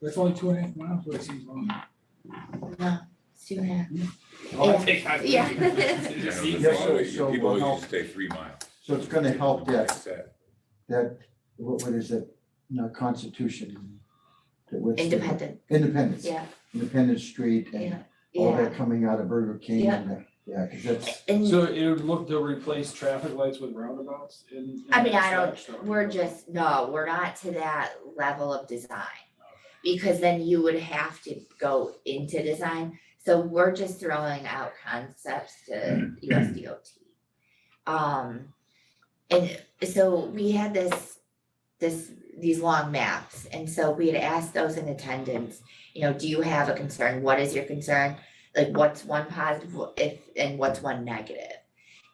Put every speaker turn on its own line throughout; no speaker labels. That's only two and a half miles, but it seems long.
Well, two and a half.
I'll take that.
Uh-huh. Yeah.
You know,
See,
Yeah,
that's
so-
why we-
so
People
we'll
always stay three miles.
So it's gonna help that,
Set.
that, what, what is it, no, Constitution? that what's the-
Independent,
Independence,
yeah,
Independence Street and all
yeah.
that coming out of Burger King and that, yeah, cause that's,
And
So it would look to replace traffic lights with roundabouts in. in
I mean, I
that stretch, though.
we're just, no, we're not to that level of design. Because then you would have to go into design, so we're just throwing out concepts to USDOT. Um, and so we had this, this, these long maps, and so we had asked those in attendance, you know, do you have a concern, what is your concern? Like, what's one positive, wh- if, and what's one negative?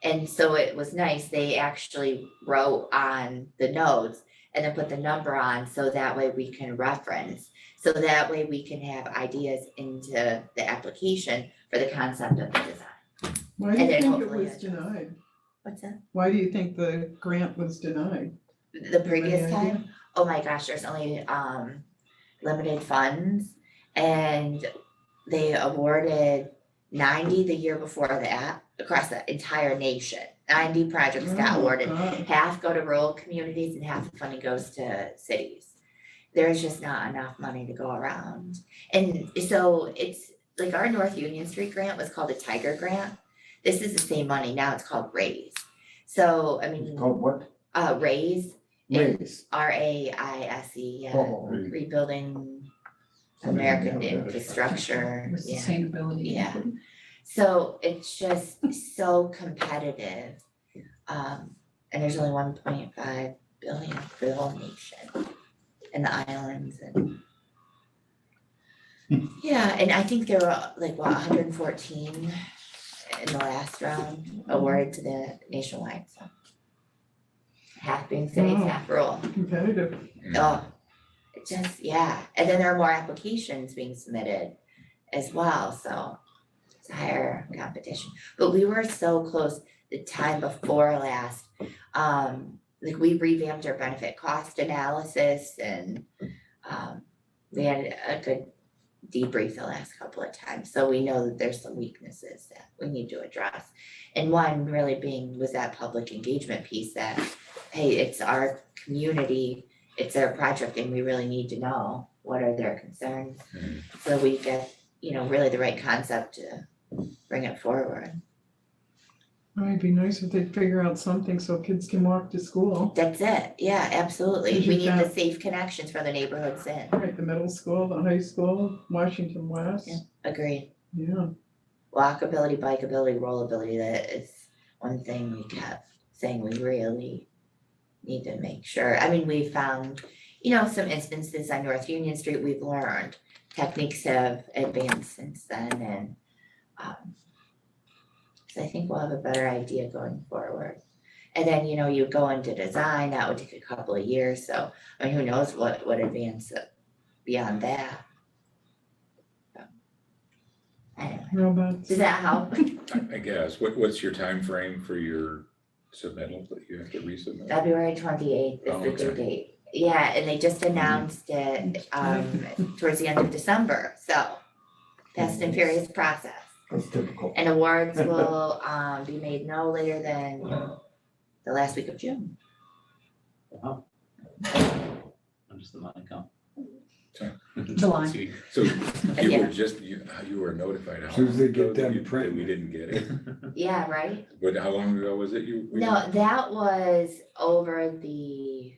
And so it was nice, they actually wrote on the notes and then put the number on, so that way we can reference. So that way we can have ideas into the application for the concept of the design.
Why do
And
you
then
think it
hopefully
was
it-
denied?
What's that?
Why do you think the grant was denied? uh,
The previous
Any
time, oh my gosh, there's only um limited funds and they awarded ninety the year before that across the entire nation. Ninety projects got
Oh,
awarded
God.
half go to rural communities and half the funding goes to cities. There's just not enough money to go around. And so it's like our North Union Street grant was called a Tiger Grant. This is the same money. Now it's called Raise. So, I
it's
mean,
called what?
uh, Raise,
Raise.
R A I S E, yeah,
Oh,
rebuilding
Something like
American
that.
infrastructure,
with
yeah.
sustainability.
Yeah. So it's just so competitive. Um, and there's only one point five billion for the whole nation and the islands and. Yeah, and I think there were like, what, hundred and fourteen in the last round awarded to the nationwide, so. Half being cities,
Wow.
half rural.
Competitive.
Mm-hmm.
Oh, it just, yeah, and then there are more applications being submitted as well, so it's a higher competition. But we were so close the time before last, um, like we revamped our benefit cost analysis and um, we had a good debrief the last couple of times, so we know that there's some weaknesses that we need to address. And one really being was that public engagement piece that, hey, it's our community, it's their project and we really need to know what are their concerns.
Mhm.
So we get, you know, really the right concept to bring it forward.
Oh, It'd be nice if they'd figure out something so kids can walk to school,
That's it, yeah, absolutely.
Did
We
you
need the
found-
safe connections for the neighborhoods in,
right? The middle school, the high school, Washington West.
Yeah. agreed.
Yeah,
Walkability, bikeability, rollability, that is one thing we kept saying we really need to make sure. I mean, we found, you know, some instances on North Union Street, we've learned techniques have advanced since then and um so I think we'll have a better idea going forward. And then, you know, you go into design, that would take a couple of years, so I mean, who knows what what advance beyond that. So, Anyway,
robots.
does that help?
I I guess, what, what's your time frame for your submittal that you have to resubmit?
February twenty-eighth
Oh,
is the due
okay.
date. Yeah, and they just announced it, um, towards the end of December, so fast and furious process.
That's typical.
And awards will, um, be made no later than the last week of June.
I'm just the mic up.
July.
See,
So you
Yeah.
were just, you, you were notified. how
Soon as they
long ago
get
that
them
you- that
print.
We didn't get it,
Yeah, right?
but how long ago was it you? we-
No, that was over the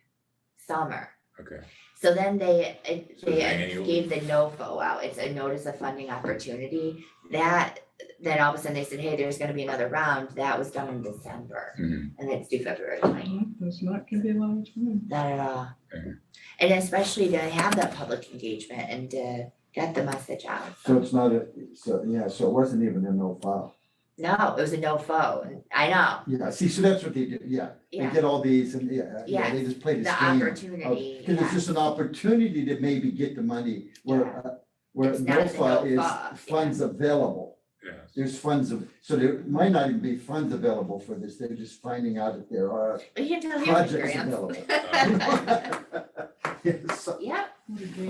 summer.
Okay,
So then they, it-
So
they
annual.
gave the NOFO out, it's a notice of funding opportunity. That, then all of a sudden they said, hey, there's gonna be another round, that was done in December,
Mhm.
and it's due February twenty,
Well, That's not gonna be a long time.
not at all.
Mhm.
And especially to have that public engagement and to get the message out.
So it's not a, so, yeah, so it wasn't even a no file.
No, it was a NOFO, and I know,
Yeah, see, so that's what they did, yeah, they
yeah,
did all these and, yeah, yeah, they just played this
the
game.
opportunity,
Cause it's
yeah,
just an opportunity to maybe get the money
Yeah.
where, uh, where
It's not a
NOFA
NOFA,
is funds available.
yes.
There's funds, av- so there might not even be funds available for this, they're just finding out if there are
But you can tell your
projects
grants.
available. Yes.
Yep.
What a game.